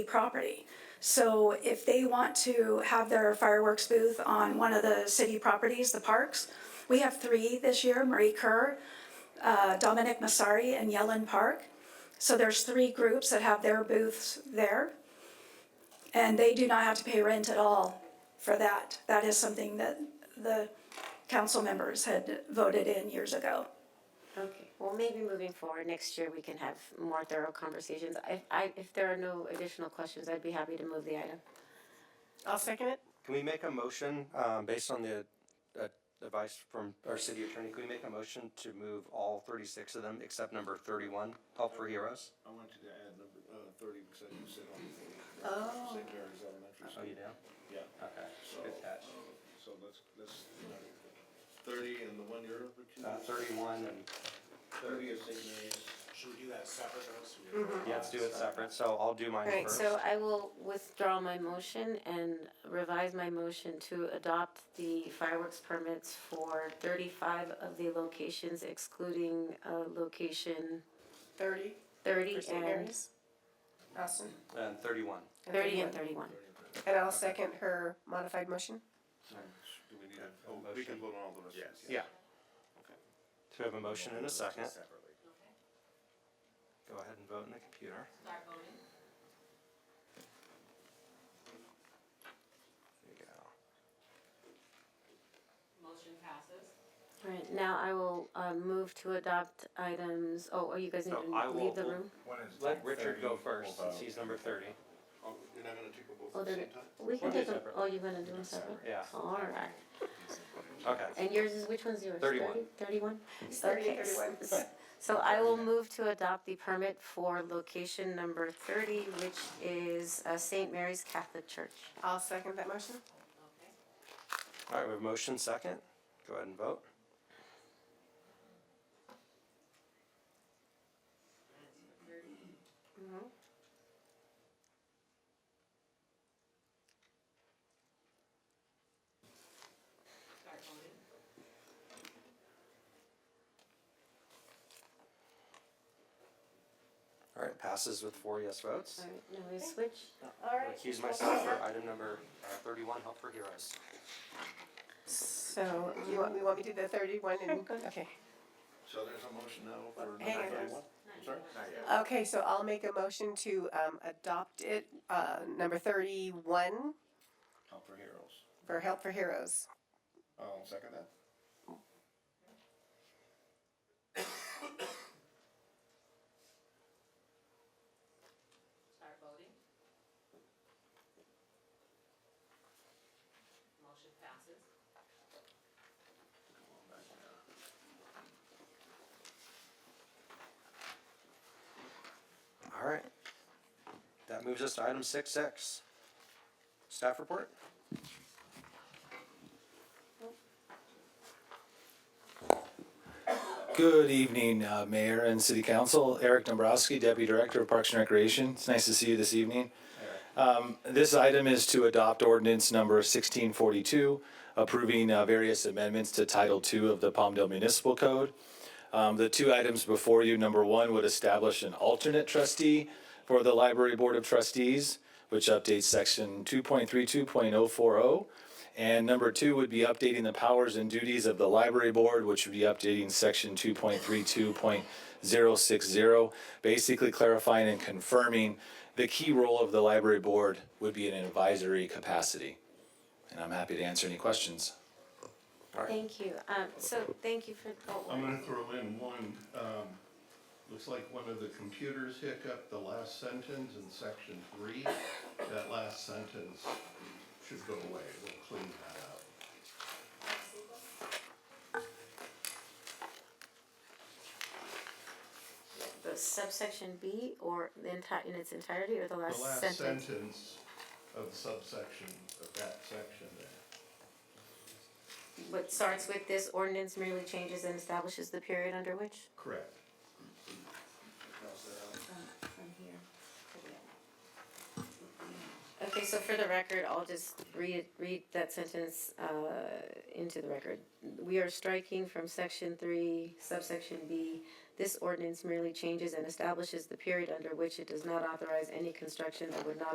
property. So if they want to have their fireworks booth on one of the city properties, the parks, we have three this year, Marie Kerr, uh, Dominic Masari, and Yellen Park. So there's three groups that have their booths there. And they do not have to pay rent at all for that. That is something that the council members had voted in years ago. Okay, well, maybe moving forward, next year we can have more thorough conversations. If, I, if there are no additional questions, I'd be happy to move the item. I'll second it. Can we make a motion, um, based on the, uh, advice from our city attorney, can we make a motion to move all thirty-six of them except number thirty-one, Help for Heroes? I want you to add number, uh, thirty, because you said on the, uh, St. Mary's Elementary Oh, you School. do? Yeah, Okay, good catch. so let's, let's, thirty and the one you're up to? Uh, thirty-one and, Thirty is St. Mary's. Should we do that separate or else we- yeah, let's do it separate, so I'll do mine All right, first. so I will withdraw my motion and revise my motion to adopt the fireworks permits for thirty-five of the locations excluding, uh, location Thirty thirty for St. and, Mary's. Awesome. And thirty-one. thirty and thirty-one. And I'll second her modified motion. Do we need a, oh, we can vote on all the rest. Yes. Yeah. Do we have a motion and a second? Go ahead and vote in the computer. There you go. Motion passes. All right, now I will, uh, move to adopt items, oh, oh, you guys need No, I to will- leave the we'll- room? Let Richard go first, since he's number thirty. Oh, you're not gonna take them both Oh, at the they're, same time? we can We'll do take, a- separate. oh, you're gonna do them separate? Yeah. All right. Okay. And yours is, which one's yours? 31. Thirty-one? Thirty Okay, and s- thirty-one. s- So I will move to adopt the permit for location number thirty, which is uh, St. Mary's Catholic Church. I'll second that motion. Okay. All right, we have motion second. Go ahead and vote. Start voting. All right, passes with four yes votes. All right, now we switch. All I Recuse myself for item number uh, thirty-one, Help for Heroes. So you want, you want me to do the thirty-one and, okay. So there's a motion now for Hang number on. thirty-one? Sorry? Not yet. Okay, so I'll make a motion to, um, adopt it, uh, number thirty-one Help for Heroes. for Help for Heroes. I'll second that. Start voting. Motion passes. All right. That moves us to item six X. Staff report? Good evening, uh, Mayor and City Council. Eric Dombrowski, Deputy Director of Parks and Recreation. It's nice to see you this evening. Um, This item is to adopt ordinance number 1642, approving uh, various amendments to Title II of the Palmdale Municipal Code. Um, The two items before you, number one, would establish an alternate trustee for the Library Board of Trustees, which updates section 2.32.040. And number two would be updating the powers and duties of the Library Board, which would be updating section 2.32.060, basically clarifying and confirming the key role of the Library Board would be in an advisory capacity. And I'm happy to answer any questions. Thank you. Um, so thank you for, oh, I'm gonna throw in one, um, looks like one of the computers hiccup, the last sentence in section three. That last sentence should go away, we'll clean that up. the subsection B or the entire, in its entirety or the The last last sentence? sentence of subsection, of that section there. What starts with this ordinance merely changes and establishes the period under which? Correct. from here to there. Okay, so for the record, I'll just read, read that sentence, uh, into the record. We are striking from section three, subsection B. This ordinance merely changes and establishes the period under which it does not authorize any construction that would not